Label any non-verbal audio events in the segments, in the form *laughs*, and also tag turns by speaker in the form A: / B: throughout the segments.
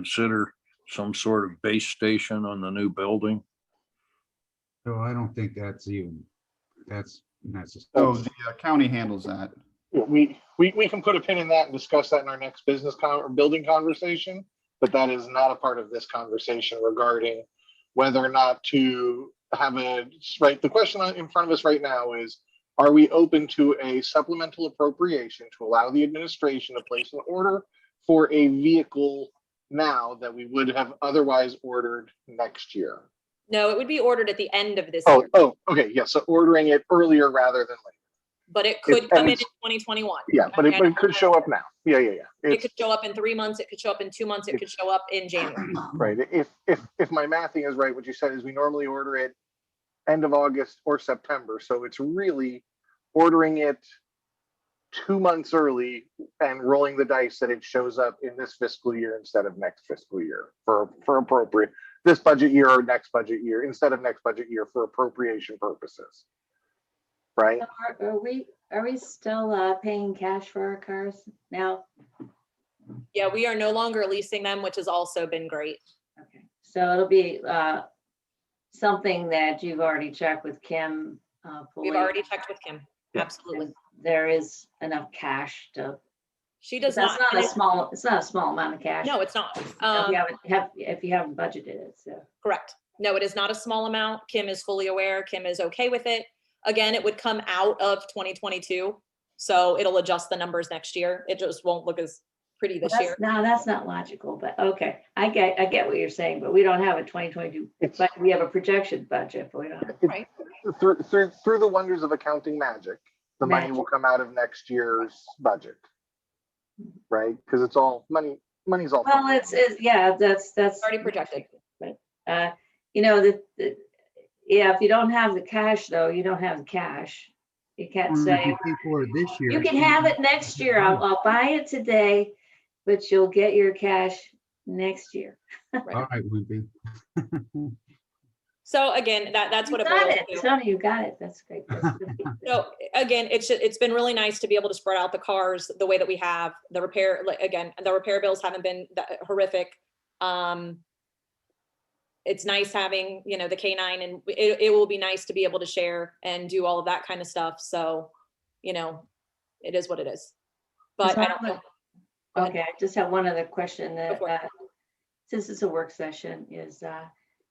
A: consider some sort of base station on the new building?
B: So I don't think that's even, that's necessary.
C: So the uh, county handles that.
D: Yeah, we, we, we can put a pin in that and discuss that in our next business con, or building conversation, but that is not a part of this conversation regarding whether or not to have a, right, the question on- in front of us right now is, are we open to a supplemental appropriation to allow the administration to place an order for a vehicle now that we would have otherwise ordered next year?
E: No, it would be ordered at the end of this
D: Oh,
E: year,
D: oh, okay, yeah, so ordering it earlier rather than later.
E: but it could
D: and
E: come in in
D: it's-
E: twenty twenty-one.
D: Yeah, but it, but it could show up now. Yeah, yeah, yeah.
E: It
D: It's-
E: could show up in three months, it could show up in two months, it could show up
D: *clears throat*
E: in January.
D: Right, if, if, if my mathing is right, what you said is we normally order it end of August or September, so it's really ordering it two months early and rolling the dice that it shows up in this fiscal year instead of next fiscal year for, for appropriate, this budget year or next budget year, instead of next budget year for appropriation purposes. Right?
F: So Are are we, are we still uh, paying cash for our cars now?
E: Yeah, we are no longer leasing them, which has also been great.
F: Okay, So it'll be uh, something that you've already checked with Kim. uh,
E: We've
F: Pulley,
E: already checked with Kim. Absolutely.
F: and There is enough cash to,
E: She does
F: that's
E: not.
F: not a small, it's not a small amount of cash.
E: No, it's not.
F: If
E: Um,
F: you haven't, have- if you haven't budgeted it, so.
E: Correct. No, it is not a small amount. Kim is fully aware. Kim is okay with it. Again, it would come out of 2022. So it'll adjust the numbers next year. It just won't look as pretty this year.
F: That's- No, that's not logical, but okay, I get, I get what you're saying, but we don't have a 2022,
D: It's-
F: but we have a projection budget, but we don't. have-
E: Right.
D: Through, through, through the wonders of accounting magic, the money will come out of next year's budget. Right? Because it's all, money, money's all.
F: Well, it's, it's, yeah, that's, that's.
E: Already projected.
F: Uh, you know, the, the, yeah, if you don't have the cash though, you don't have the cash. You can't say,
B: For this year.
F: you can have it next year. I'll, I'll buy it today, but you'll get your cash next year.
B: All right, Wimpy. *laughs*
E: So again, that, that's what
F: You
E: it
F: got
E: boils
F: it.
E: to.
F: Tony, you got it. That's great. *laughs* That's good.
E: So again, it's, ju- it's been really nice to be able to spread out the cars the way that we have. The repair, like, again, the repair bills haven't been that horrific. Um, It's nice having, you know, the K nine and it, it will be nice to be able to share and do all of that kind of stuff. So, you know, it is what it is. But I don't know. Go ahead.
F: Okay, I just have one other question that,
E: for it.
F: uh, since it's a work session, is, uh,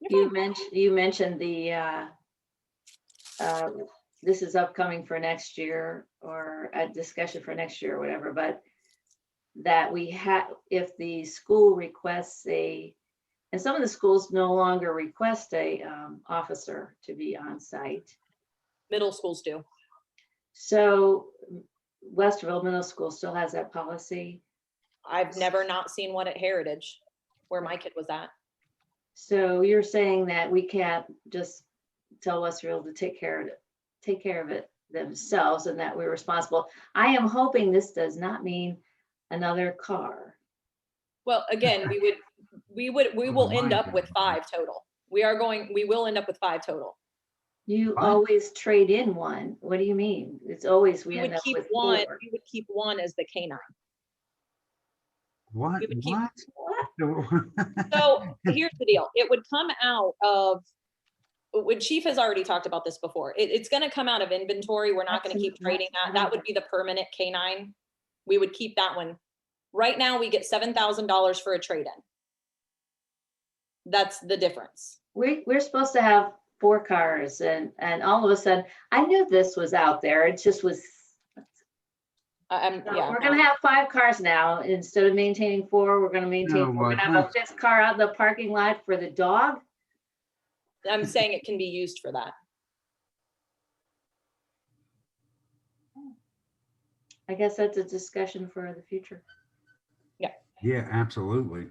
E: You're
F: you mentioned, you mentioned the, uh, uh, this is upcoming for next year or a discussion for next year or whatever, but that we have, if the school requests a, and some of the schools no longer request a, um, officer to be on site.
E: Middle schools do.
F: So Westerville Middle School still has that policy.
E: I've never not seen one at Heritage where my kid was at.
F: So you're saying that we can't just tell Westfield to take care of it, take care of it themselves and that we're responsible. I am hoping this does not mean another car.
E: Well, again, we would, we would, we will end
B: Mine
E: up with
B: doesn't.
E: five total. We are going, we will end up with five total.
F: You
B: Huh?
F: always trade in one. What do you mean? It's always we
E: We
F: end
E: would
F: up
E: keep
F: with
E: one,
F: four.
E: we would keep one as the canine.
B: What,
E: You would keep-
B: what?
F: What?
E: So here's the deal, it would come out of, when Chief has already talked about this before, it, it's gonna come out of inventory, we're not gonna keep
F: Absolutely,
E: trading that, that would be the permanent canine. We would keep that one. Right now, we get seven thousand dollars for a trade-in. That's the difference.
F: We, we're supposed to have four cars and, and all of a sudden, I knew this was out there. It just was
E: I- I'm-
F: No,
E: yeah.
F: We're gonna have five cars now. Instead of maintaining four, we're gonna
B: No,
F: maintain, four.
B: my
F: we're gonna have a
B: God.
F: fifth car out in the parking lot for the dog.
E: I'm saying it can be used for that.
F: I guess that's a discussion for the future.
B: *laughs* Yeah, absolutely.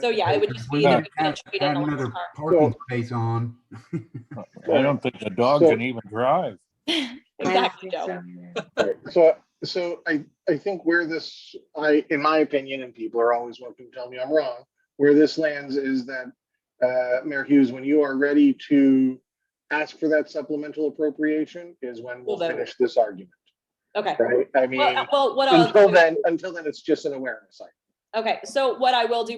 E: So yeah, it would just be that
B: Add
E: we couldn't trade in
B: add
E: a
B: another
E: lost car.
B: parking space on.
A: I don't think the dog
D: So-
A: can even drive.
F: I don't
E: Exactly,
F: think
E: Joe.
F: so either.
D: Right, So, so I, I think where this, I, in my opinion, and people are always welcome to tell me I'm wrong, where this lands is that, uh, Mayor Hughes, when you are ready to ask for that supplemental appropriation is when we'll
E: We'll vote.
D: finish this argument,
E: Okay.
D: right? I mean,
E: Well, uh, well, what I'll,
D: until
E: do-
D: then, until then, it's just an awareness. item.
E: Okay, so what I will do